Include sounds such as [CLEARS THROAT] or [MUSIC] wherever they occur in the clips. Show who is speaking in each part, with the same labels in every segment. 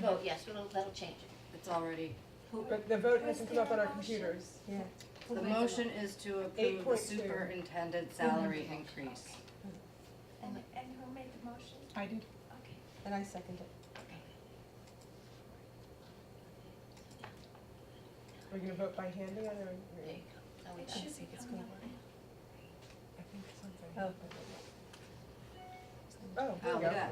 Speaker 1: vote Oh, yes, it'll, that'll change it.
Speaker 2: It's already,
Speaker 1: Who-
Speaker 3: But the vote hasn't come up on our computers.
Speaker 4: Yeah.
Speaker 1: who
Speaker 2: the
Speaker 1: made
Speaker 2: motion is to approve the
Speaker 3: 8.2.
Speaker 2: superintendent salary increase.
Speaker 5: And, and who made the motion?
Speaker 4: I did.
Speaker 5: Okay.
Speaker 4: And I seconded.
Speaker 3: We're gonna vote by hand again, or?
Speaker 1: There you go. Now we
Speaker 5: It
Speaker 1: got it.
Speaker 5: should be
Speaker 4: it's
Speaker 5: coming
Speaker 4: going.
Speaker 5: up.
Speaker 3: I think something.
Speaker 4: Oh.
Speaker 3: Oh, there
Speaker 2: Oh,
Speaker 3: you go.
Speaker 2: yeah.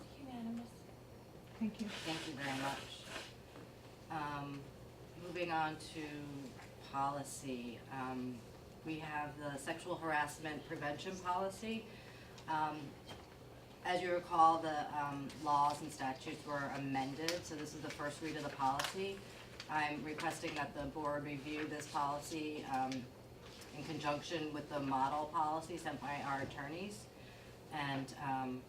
Speaker 5: It's Unanimous.
Speaker 4: Thank you.
Speaker 2: Thank you very much. Um, moving on to policy, um, we have the sexual harassment prevention policy. Um, as you recall, the, um, laws and statutes were amended, so this is the first read of the policy. I'm requesting that the board review this policy, um, in conjunction with the model policy sent by our attorneys. And, um,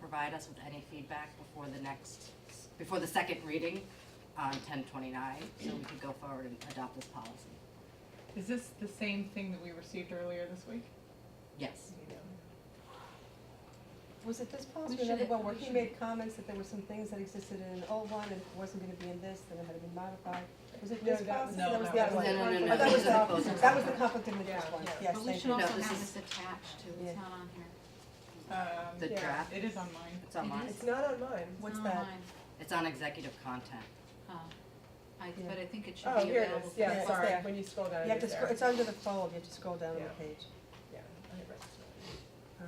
Speaker 2: provide us with any feedback before the next, before the second reading on ten twenty-nine, so we could go forward and adopt this policy.
Speaker 4: Is this the same thing that we received earlier this week?
Speaker 2: Yes,
Speaker 3: Was it this policy or
Speaker 4: should-
Speaker 3: another one where
Speaker 4: we
Speaker 3: he
Speaker 4: should-
Speaker 3: made comments that there were some things that existed in an old one and wasn't gonna be in this, then it had to be modified? Was it
Speaker 6: No,
Speaker 3: this
Speaker 6: that
Speaker 3: policy?
Speaker 6: was-
Speaker 3: or
Speaker 6: no,
Speaker 3: was
Speaker 6: that
Speaker 3: the
Speaker 6: was
Speaker 3: other one?
Speaker 2: the No, no, no,
Speaker 3: Oh,
Speaker 2: these
Speaker 3: that was
Speaker 2: are the
Speaker 3: the-
Speaker 2: closing
Speaker 3: That was the
Speaker 2: comments.
Speaker 3: conflict in the first
Speaker 6: Yeah,
Speaker 3: one,
Speaker 6: yeah.
Speaker 3: yes,
Speaker 7: But we
Speaker 3: thank
Speaker 7: should
Speaker 3: you.
Speaker 2: No,
Speaker 7: also
Speaker 2: this
Speaker 7: have
Speaker 2: is-
Speaker 7: this attached to,
Speaker 3: Yeah.
Speaker 7: it's not on here.
Speaker 6: Um,
Speaker 2: the
Speaker 3: Yeah.
Speaker 2: draft,
Speaker 6: It is on mine.
Speaker 2: it's on mine,
Speaker 3: It's not on mine.
Speaker 7: It's
Speaker 3: What's
Speaker 7: not
Speaker 3: that?
Speaker 7: online.
Speaker 2: it's on executive content.
Speaker 7: Oh, I,
Speaker 3: Yeah.
Speaker 7: but I think it should
Speaker 3: Oh,
Speaker 7: be
Speaker 3: here
Speaker 7: available.
Speaker 3: it is,
Speaker 7: for
Speaker 3: yeah,
Speaker 7: us.
Speaker 3: it's
Speaker 6: sorry,
Speaker 3: there.
Speaker 6: when you scroll down,
Speaker 3: You have
Speaker 6: it
Speaker 3: to,
Speaker 6: is
Speaker 3: scro-
Speaker 6: there.
Speaker 3: it's under the fold, you have to scroll down on
Speaker 6: Yeah.
Speaker 3: the page.
Speaker 6: Yeah, I read it.
Speaker 4: All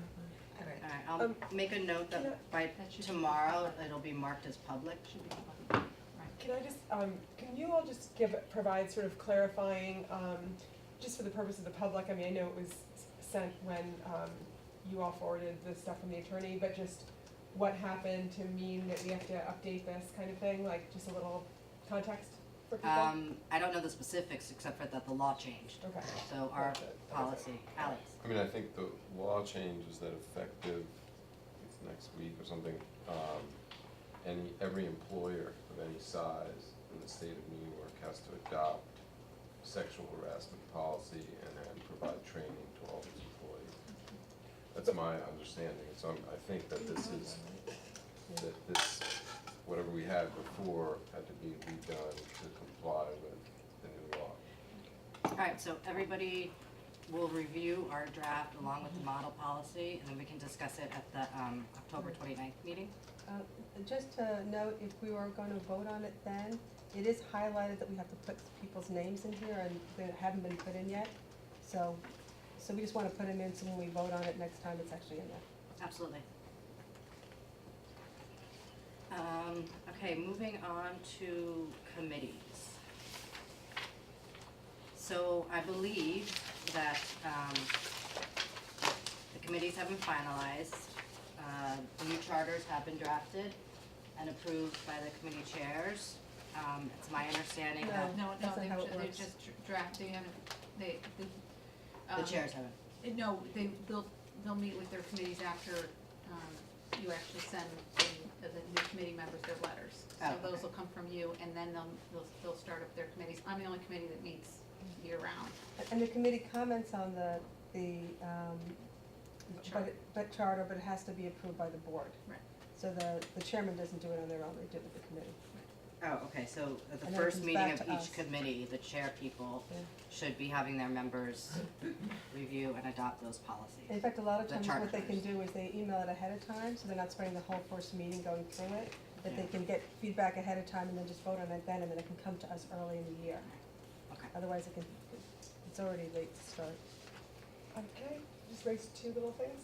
Speaker 4: right.
Speaker 2: Alright, I'll
Speaker 3: Um,
Speaker 2: make a note
Speaker 3: yeah.
Speaker 2: that by
Speaker 7: That should be-
Speaker 2: tomorrow, it'll be marked as public.
Speaker 7: Should be public.
Speaker 6: Can I just, um, can you all just give, provide sort of clarifying, um, just for the purpose of the public, I mean, I know it was s- sent when, um, you all forwarded the stuff from the attorney, but just what happened to mean that we have to update this kind of thing, like just a little context for people?
Speaker 2: Um, I don't know the specifics, except for that the law changed,
Speaker 6: Okay.
Speaker 2: so our
Speaker 6: That's it.
Speaker 2: policy, Alex,
Speaker 8: I mean, I think the law change is that effective, it's next week or something, um, any, every employer of any size in the state of New York has to adopt sexual harassment policy and then provide training to all its employees. That's my understanding, so I'm, I think that this is, that this, whatever we had before had to be redone to comply with the new law.
Speaker 2: Alright, so everybody will review our draft along with the model policy, and then we can discuss it at the, um, October twenty-ninth meeting.
Speaker 3: Uh, Just to note, if we were gonna vote on it then, it is highlighted that we have to put people's names in here and they haven't been put in yet. So, so we just wanna put them in so when we vote on it next time, it's actually in there.
Speaker 2: Absolutely. Um, okay, moving on to committees. So I believe that, um, the committees have been finalized, uh, the new charters have been drafted and approved by the committee chairs. Um, it's my understanding that
Speaker 3: No,
Speaker 7: No, no,
Speaker 3: that's not how it
Speaker 7: they're, they're
Speaker 3: works.
Speaker 7: just dr- draft, they haven't, they, the.
Speaker 2: the
Speaker 7: um,
Speaker 2: chairs haven't.
Speaker 7: uh, No, they, they'll, they'll meet with their committees after, um, you actually send the- the new committee members their letters.
Speaker 2: Oh,
Speaker 7: So
Speaker 2: okay.
Speaker 7: those will come from you, and then they'll, they'll, they'll start up their committees. I'm the only committee that meets year-round.
Speaker 3: And the committee comments on the, the, um, but,
Speaker 7: Charter.
Speaker 3: it- but charter, but it has to be approved by the board.
Speaker 7: Right.
Speaker 3: So the, the chairman doesn't do it on their own, they do it with the committee.
Speaker 2: Oh, okay, so at the
Speaker 3: And then it
Speaker 2: first
Speaker 3: comes
Speaker 2: meeting
Speaker 3: back
Speaker 2: of
Speaker 3: to us.
Speaker 2: each committee, the chair people
Speaker 3: Yeah.
Speaker 2: should be having their members review and adopt those
Speaker 3: In
Speaker 2: policies.
Speaker 3: fact, a lot of
Speaker 2: The
Speaker 3: times what they
Speaker 2: charters.
Speaker 3: can do is they email it ahead of time, so they're not spending the whole first meeting going through it. That they
Speaker 2: Yeah.
Speaker 3: can get feedback ahead of time and then just vote on it then, and then it can come to us early in the year.
Speaker 2: Okay.
Speaker 3: Otherwise, it can, it's already late to start.
Speaker 6: Um, can I just raise two little things?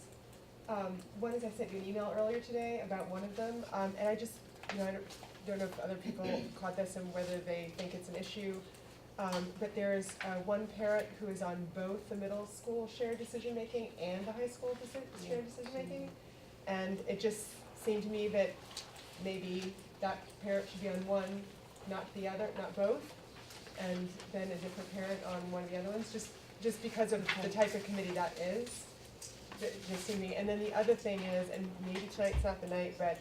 Speaker 6: Um, one is I sent you an email earlier today about one of them, um, and I just, you know, I don't, don't know if other
Speaker 2: [CLEARS THROAT]
Speaker 6: people caught this and whether they think it's an issue. Um, but there's, uh, one parent who is on both the middle school shared decision-making and the high school deci- shared decision-making. And it just seemed to me that maybe that parent should be on one, not the other, not both. And then a different parent on one of the other ones, just, just because of the type of committee that is. Th- Just seemed to me, and then the other thing is, and maybe tonight's not the night, but